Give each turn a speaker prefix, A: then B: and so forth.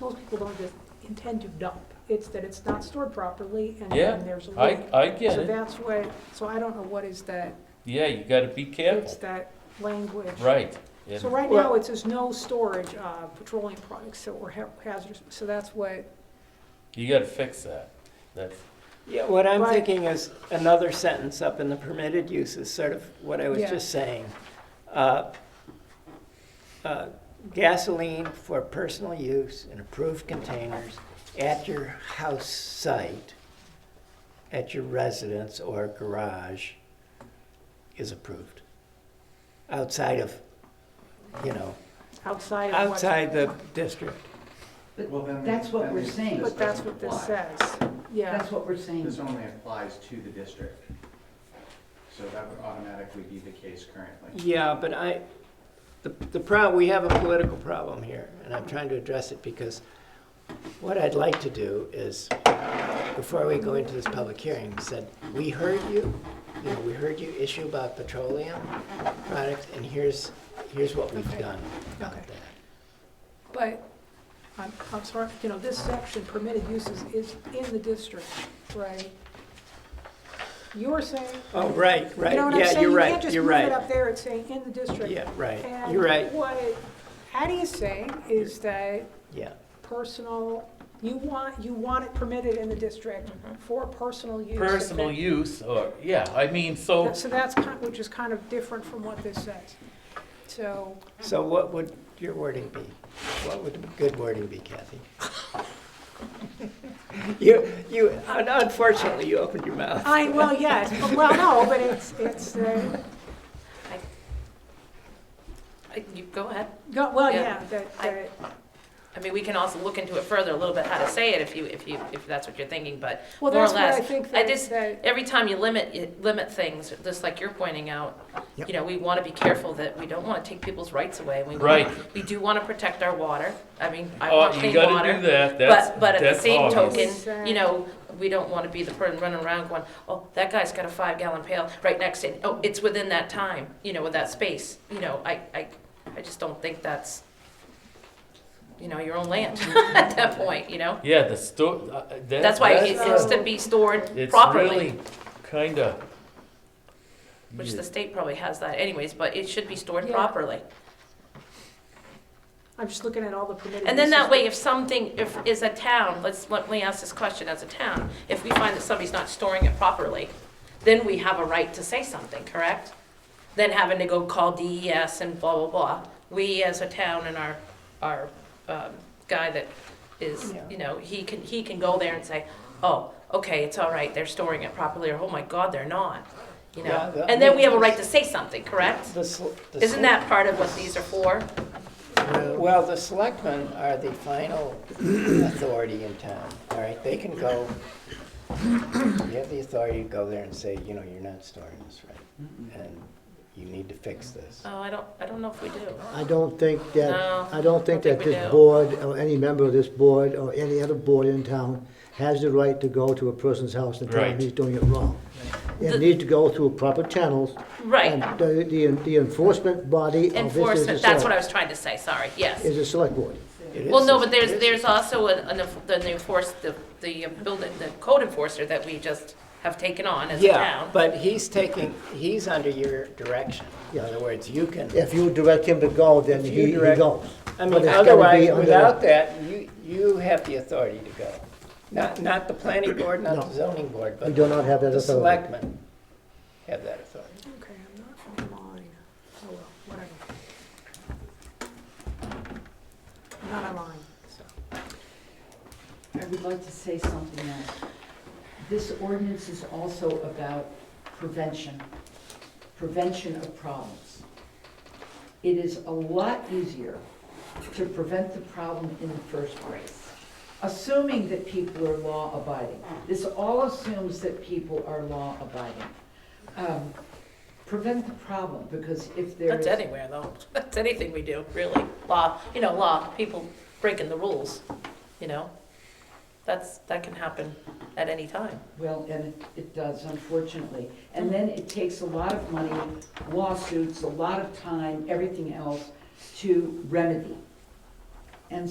A: people don't just intend to dump. It's that it's not stored properly and
B: Yeah,
A: and there's a
B: I,
A: leak.
B: I get
A: So
B: it.
A: that's what, so I don't know what is that,
B: Yeah, you gotta be
A: it's
B: careful,
A: that language.
B: right. And-
A: So right now, it says no storage of petroleum products that were ha- hazardous, so that's what,
B: You gotta fix that. That's,
C: Yeah, what I'm
A: Right.
C: thinking is another sentence up in the permitted use is sort of what I was
A: Yeah.
C: just saying. Uh, uh, Gasoline for personal use in approved containers at your house site, at your residence or garage is approved. Outside of, you know,
A: outside of what.
C: outside the district.
D: Well, then
E: That's what
D: that
E: we're
D: means
E: saying.
D: this
A: But that's
D: doesn't
A: what this
D: apply.
A: says, yeah.
E: That's what we're saying.
D: This only applies to the district. So that would automatically be the case currently.
C: Yeah, but I, the, the problem, we have a political problem here, and I'm trying to address it because what I'd like to do is, before we go into this public hearing, said, we heard you, you know, we heard you issue about petroleum products, and here's, here's what we've
A: Okay.
C: done about
A: Okay.
C: that.
A: But, I'm, I'm sorry, you know, this section, permitted uses, is in the district, right? You're saying,
C: Oh, right,
A: you
C: right,
A: know what I'm
C: yeah,
A: saying?
C: you're
A: You can't
C: right,
A: just
C: you're
A: move it up
C: right.
A: there, it's saying in the district.
C: Yeah, right,
A: And
C: you're right,
A: what it, Addie is saying is that
C: yeah,
A: personal, you want, you want it permitted in the district
F: Mm-hmm.
A: for personal use.
B: personal use or, yeah, I mean, so,
A: So that's kind, which is kind of different from what this says. So,
C: so what would your wording be? What would good wording be, Kathy? You, you, un- unfortunately, you opened your mouth.
A: I, well, yes, but- well, no, but it's, it's, uh,
F: I- You go ahead.
A: go- well,
F: Yeah.
A: yeah, that,
F: I-
A: that,
F: I mean, we can also look into it further a little bit how to say it if you, if you, if that's what you're thinking, but
A: well,
F: more or
A: that's what I
F: less,
A: think
F: I
A: that,
F: just-
A: that,
F: every time you limit, you limit things, just like you're pointing out,
C: Yep.
F: you know, we want to be careful that we don't want to take people's rights away. We wanna-
B: Right.
F: We do want to protect our water. I mean, I
B: oh,
F: want
B: you
F: clean
B: gotta do
F: water.
B: that, that's,
F: But, but at the
B: that's
F: same
B: obvious.
F: token, you know, we don't want to be the person running around going, oh, that guy's got a five gallon pail right next to it. Oh, it's within that time, you know, with that space. You know, I, I, I just don't think that's, you know, your own land at that point, you know?
B: Yeah, the store, uh, uh, that.
F: That's why it
B: that's
F: has
B: a-
F: to be stored
B: It's
F: properly,
B: really kinda.
F: which the state probably has that anyways, but it should be stored
A: Yeah.
F: properly.
A: I'm just looking at all the permitted uses.
F: And then that way, if something, if, is a town, let's, let me ask this question as a town, if we find that somebody's not storing it properly, then we have a right to say something, correct? Then having to go call DES and blah, blah, blah. We as a town and our, our, um, guy that is,
C: Yeah.
F: you know, he can, he can go there and say, oh, okay, it's all right, they're storing it properly, or oh my God, they're not, you
C: Yeah,
F: know?
C: that-
F: And then we have a right to say something, correct?
C: The sel- the
F: Isn't that part of what these are for?
C: sel- Well, the selectmen are the final authority in town, all right? They can go, you have the authority to go there and say, you know, you're not storing this right, and you need to fix this.
F: Oh, I don't, I don't know if we do.
G: I don't think
F: No,
G: that, I don't think
F: I
G: that
F: think we
G: this
F: do.
G: board, or any member of this board, or any other board in town, has the right to go to a person's house and tell him
B: Right.
G: he's doing it wrong.
F: The-
G: It needs to go through proper channels.
F: Right.
G: And the, the- the enforcement body of Oh, this is the
F: Enforcement, that's what I
G: select,
F: was trying to say, sorry, yes.
G: is the select board.
C: It is
F: Well, no,
C: a-
F: but
C: it
F: there's,
C: is-
F: there's also an, an enf- the the enforce, the, the building, the code enforcer that we just have taken on as a
C: Yeah,
F: town.
C: but he's taking, he's under your direction. In
G: Yeah.
C: other words, you can,
G: If you direct him to go, then
C: If
G: he
C: you
G: he
C: direct-
G: goes.
C: I
G: But
C: mean,
G: it's gotta be
C: otherwise,
G: under the-
C: without that, you, you have the authority to go. Not, not the planning board, not the
G: No.
C: zoning board, but
G: We do not have that
C: the
G: authority.
C: selectmen have that authority.
A: Okay, I'm not online. Oh, well, whatever. I'm Not online, so.
E: I would like to say something else. This ordinance is also about prevention, prevention of problems. It is a lot easier to prevent the problem in the first place, assuming that people are law-abiding. This all assumes that people are law-abiding. Um, Prevent the problem, because if there
F: That's
E: is...
F: anywhere though, that's anything we do, really. Law, you know, law, people breaking the rules, you know? That's, that can happen at any time.
E: Well, and it- it does, unfortunately. And then it takes a lot of money, lawsuits, a lot of time, everything else to remedy. And